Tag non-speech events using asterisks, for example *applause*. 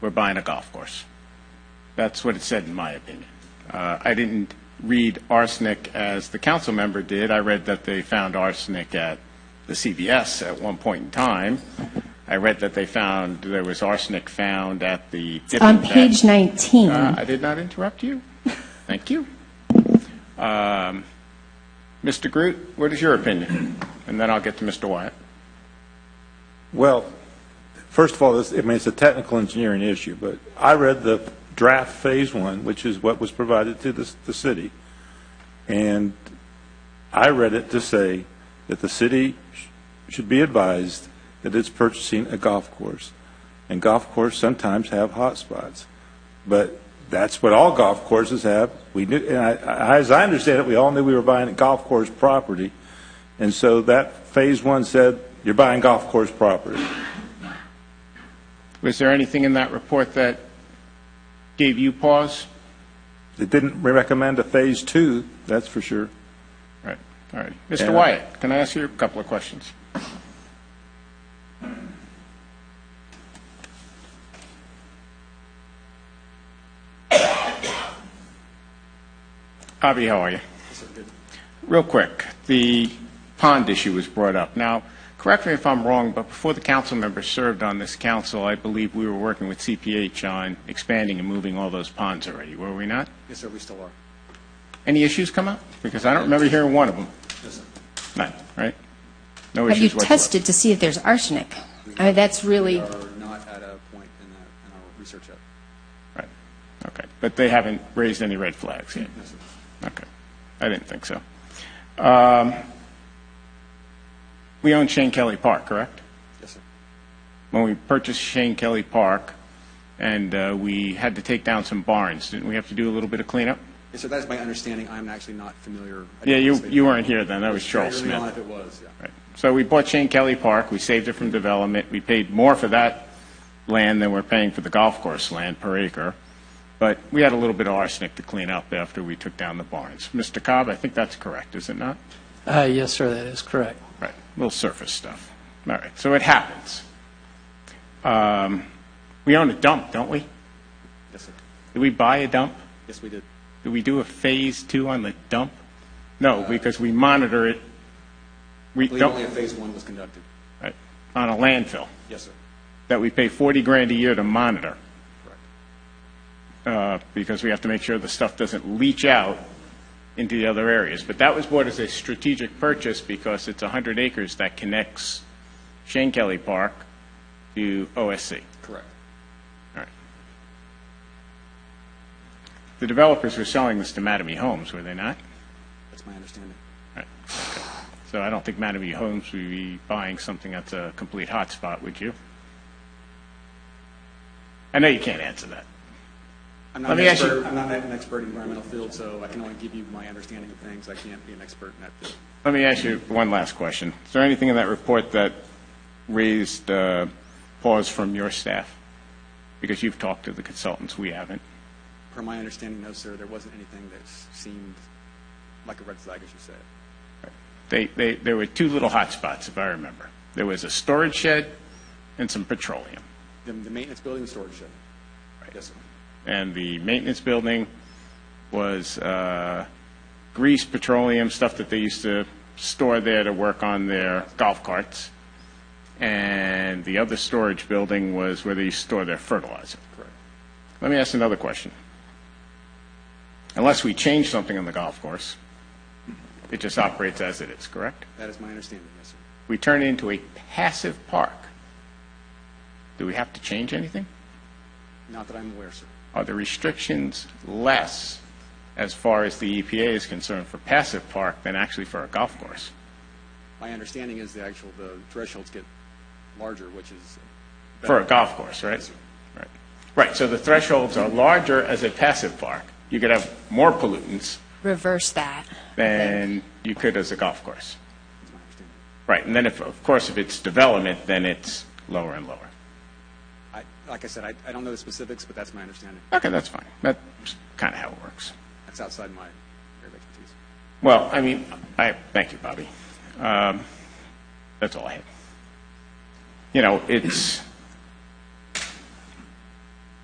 we're buying a golf course. That's what it said, in my opinion. Uh, I didn't read arsenic as the council member did. I read that they found arsenic at the CVS at one point in time. I read that they found, there was arsenic found at the dipping On bed. page 19. Uh, I did not interrupt you. Thank you. Um, Mr. Groot, what is your opinion? And then I'll get to Mr. Wyatt. Well, first of all, this, I mean, it's a technical engineering issue, but I read the draft Phase One, which is what was provided to the, the city, and I read it to say that the city sh- should be advised that it's purchasing a golf course, and golf courses sometimes have hot spots, but that's what all golf courses have. We knew, and I, I, as I understand it, we all knew we were buying a golf course property, and so that Phase One said, you're buying golf course property. Was there anything in that report that gave you pause? It didn't recommend a Phase Two, that's for sure. Right, all right. Mr. Yeah. Wyatt, can I ask you a couple of questions? *coughs* Avi, how are you? Real quick, the pond issue was brought up. Now, correct me if I'm wrong, but before the council members served on this council, I believe we were working with CPH on expanding and moving all those ponds already, were we not? Yes, sir, we still are. Any issues come up? Because I don't remember hearing one of them. None, right? No Have you issues whatsoever. tested to see if there's arsenic? I mean, that's We really, are not at a point in that, in our research yet. Right, okay. But they haven't raised any red flags yet? No, sir. Okay, I didn't think so. Um, We own Shane Kelly Park, correct? Yes, sir. When we purchased Shane Kelly Park, and uh, we had to take down some barns, didn't we have to do a little bit of cleanup? Yes, sir, that is my understanding. I'm actually not familiar. I Yeah, didn't you, participate. you weren't here then, that was Charles Very early Smith. on if it was, yeah. Right. So we bought Shane Kelly Park, we saved it from development, we paid more for that land than we're paying for the golf course land per acre, but we had a little bit of arsenic to clean up after we took down the barns. Mr. Cobb, I think that's correct, is it not? Uh, Yes, sir, that is correct. Right, little surface stuff. All right, so it happens. Um, We own a dump, don't we? Yes, sir. Did we buy a dump? Yes, we did. Did we do a phase two on the dump? No, because we monitor it. We I believe only don't, a phase one was conducted. right, on a landfill. Yes, sir. that we pay 40 grand a year to monitor, Correct. uh, because we have to make sure the stuff doesn't leach out into the other areas. But that was bought as a strategic purchase because it's 100 acres that connects Shane Kelly Park to OSC. Correct. All right. The developers were selling this to Mattamy Homes, were they not? That's my understanding. Right. Okay. So I don't think Mattamy Homes would be buying something that's a complete hotspot, would you? I know you can't answer that. I'm not Let an me ask expert- you- I'm not an expert in environmental field, so I can only give you my understanding of things. I can't be an expert in that field. Let me ask you one last question. Is there anything in that report that raised uh, pause from your staff? Because you've talked to the consultants, we haven't. Per my understanding, no, sir, there wasn't anything that s- seemed like a red flag, as you said. They, they, there were two little hot spots, if I remember. There was a storage shed and some petroleum, The the maintenance building and storage shed. Yes, sir. and the maintenance building was uh, grease, petroleum, stuff that they used to store there to work on their golf carts, and the other storage building was where they used to store their fertilizer. Correct. Let me ask another question. Unless we change something on the golf course, it just operates as it is, correct? That is my understanding, yes, sir. We turn it into a passive park. Do we have to change anything? Not that I'm aware, sir. Are the restrictions less as far as the EPA is concerned for passive park than actually for a golf course? My understanding is the actual, the thresholds get larger, which is. For a golf course, right? Yes, sir. Right. Right, so the thresholds are larger as a passive park. You could have more pollutants reverse that. than you could as a golf course. That's my understanding. Right, and then if, of course, if it's development, then it's lower and lower. I, like I said, I, I don't know the specifics, but that's my understanding. Okay, that's fine. That's kind of how it works. That's outside my area of expertise. Well, I mean, I, thank you, Bobby. Um, That's all I have. You know, it's,